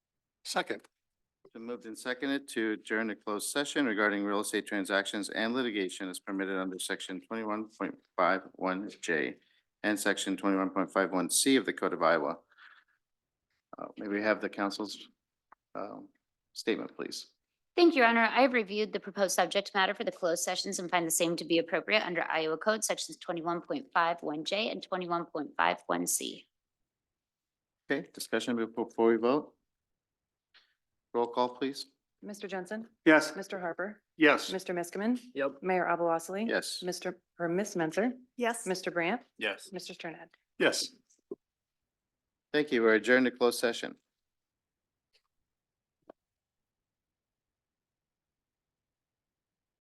Second. Been moved and seconded to adjourn to closed session regarding real estate transactions and litigation as permitted under section twenty-one point five one J and section twenty-one point five one C of the Code of Iowa. Uh, may we have the council's, um, statement, please? Thank you, Your Honor. I have reviewed the proposed subject matter for the closed sessions and find the same to be appropriate under Iowa Code Sections twenty-one point five one J and twenty-one point five one C. Okay, discussion before we vote? Roll call, please. Mr. Jensen, Yes. Mr. Harper, Yes. Mr. Miskman, Yep. Mayor Abalosely. Yes. Mr. or Miss Menzer, Yes. Mr. Brandt, Yes. Mr. Sternad. Yes. Thank you. We're adjourned to closed session.